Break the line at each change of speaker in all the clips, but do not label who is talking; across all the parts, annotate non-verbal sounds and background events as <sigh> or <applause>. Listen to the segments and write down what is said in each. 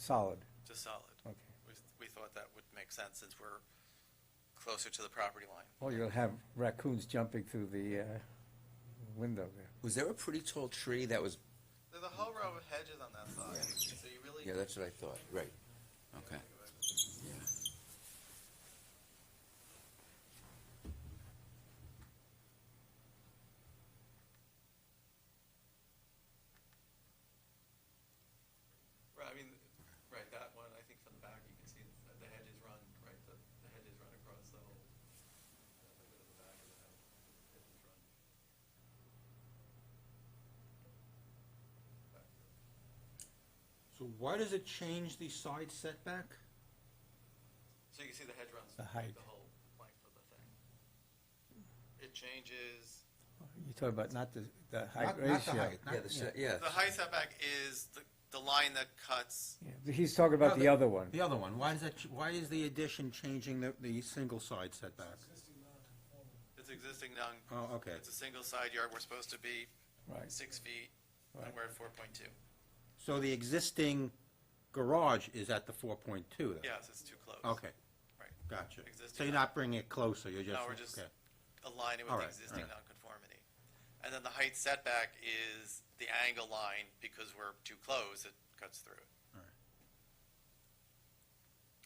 solid,
just solid.
okay.
We, we thought that would make sense since we're closer to the property line.
Well, you'll have raccoons jumping through the, uh, window there.
Was there a pretty tall tree that was,
There's a whole row of hedges on that side, so you really.
yeah, that's what I thought, right. Okay.
Right, I mean, right, that one, I think from the back, you can see that the hedges run, right, the, the hedges run across the whole, uh, the bit of the back of the house. Hedges run. Back to-
So why does it change the side setback?
So you can see the hedge runs.
The height.
The whole length of the thing. It changes,
You're talking about not the, the height
Not-
ratio.
not the height, not-
Yeah, the, se- yeah.
the height setback is the, the line that cuts,
Yeah, but He's talking about the other one.
The other one, why is that, ch- why is the addition changing the, the single side setback?
it's existing non.
Oh, okay.
It's a single side yard, we're supposed to be
Right.
six feet, and
Right.
we're at four point two.
So the existing garage is at the four point two then?
Yes, it's too close.
Okay,
Right.
gotcha. So
Existing
you're not bringing it closer, you're just,
No, we're just
okay.
aligning with
All
the
right, all
existing
right.
nonconformity. And then the height setback is the angle line, because we're too close, it cuts through it.
All right.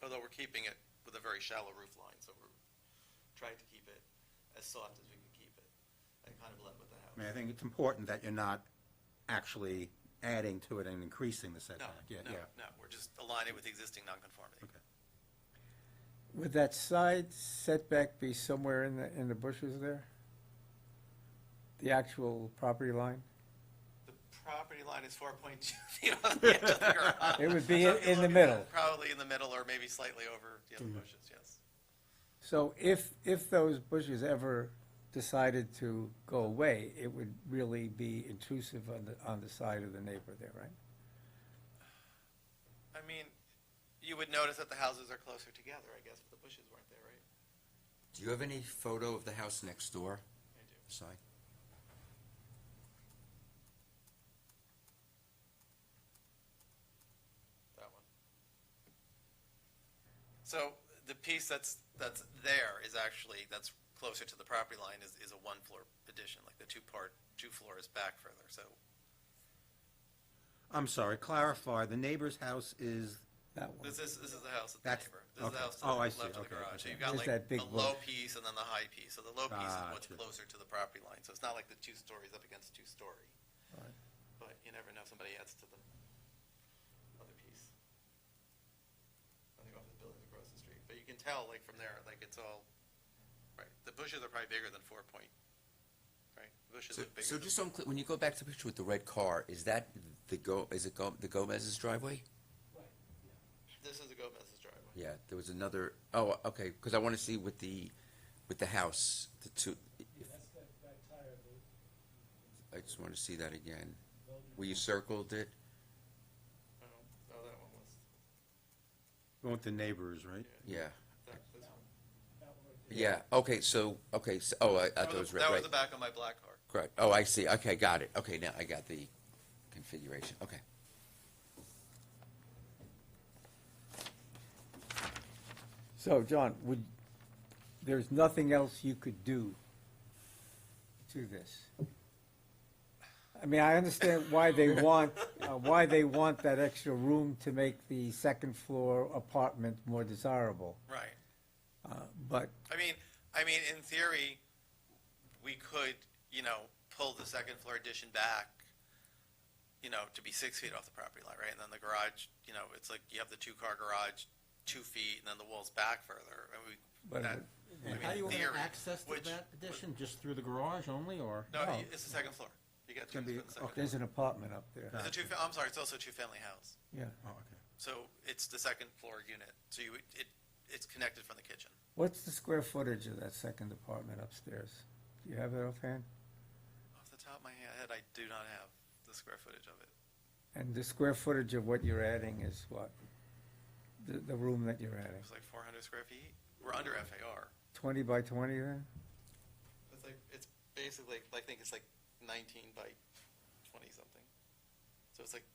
Although we're keeping it with a very shallow roof line, so we're trying to keep it as soft as we can keep it, and kind of blend with the
I mean,
house.
I think it's important that you're not actually adding to it and increasing the
No,
setback, yeah,
no,
yeah.
no, we're just aligning with the existing nonconformity.
Okay.
Would that side setback be somewhere in the, in the bushes there? The actual property line?
The property line is four point two <laughs> feet off the edge of the <laughs> garage.
It would be
So
in-
if you
in the
look at
middle. Mm-hmm.
it, Probably in the middle, or maybe slightly over the other bushes, yes.
So if, if those bushes ever decided to go away, it would really be intrusive on the, on the side of the neighbor there, right?
I mean, you would notice that the houses are closer together, I guess, but the bushes weren't there, right?
Do you have any photo of the house next door,
I do.
side?
That one. So the piece that's, that's there is actually, that's closer to the property line is, is a one-floor addition, like the two-part, two floors back further, so
I'm sorry, clarify, the neighbor's house is,
That one.
this is, this is the house of the
That's-
neighbor. This is the
okay.
house to
Oh, I
the
see.
left of the
Okay,
garage, so
okay.
you've got
There's
like
that big
the low
bush.
piece and then the high piece, so the low piece is what's
Gotcha.
closer to the property line, so it's not like the two stories up against two-story.
Right.
But you never know, somebody adds to the other piece. I think off the building across the street, but you can tell, like, from there, like, it's all, right, the bushes are probably bigger than four point, right? The Bushes
So,
look
so
bigger
just
than,
so I'm clear, when you go back to the picture with the red car, is that the Go, is it Go, the Gomez's driveway?
this is the Gomez's driveway.
Yeah, there was another, oh, okay, because I want to see with the, with the house, the two,
That's that, that tire, the,
I just want to see that again. Where you circled it?
Oh, oh, that one was,
you want the neighbors, right?
Yeah,
that, this one.
that one.
yeah, okay, so, okay, so, oh, I, I
That
thought it was
was, the-
red,
that
right.
was the back of my black car.
Correct. Oh, I see. Okay, got it. Okay, now I got the configuration. Okay.
So, John, would, there's nothing else you could do to this? I mean, I understand why
<laughs>
they want, uh, why they want that extra room to make the second floor apartment more desirable,
Right.
uh, but
I mean, I mean, in theory, we could, you know, pull the second floor addition back, you know, to be six feet off the property line, right? And then the garage, you know, it's like you have the two-car garage, two feet, and then the wall's back further, and we,
But-
that, I
And
mean,
how do
in
you want
theory.
access to
which-
that addition, just through the garage only, or?
No,
No.
it's the second floor. You got to,
Can
it's
be-
the second floor.
there's an apartment up there,
It's a two, fa- I'm sorry, it's also a two-family house,
yeah.
Oh, okay.
so it's the second floor unit, so you, would- it, it's connected from the kitchen.
What's the square footage of that second apartment upstairs? Do you have that offhand?
Off the top of my head, I do not have the square footage of it.
And the square footage of what you're adding is what? The, the room that you're adding,
It's like four hundred square feet. We're under FAR.
twenty by twenty then?
It's like, it's basically, I think it's like nineteen by twenty something. So it's like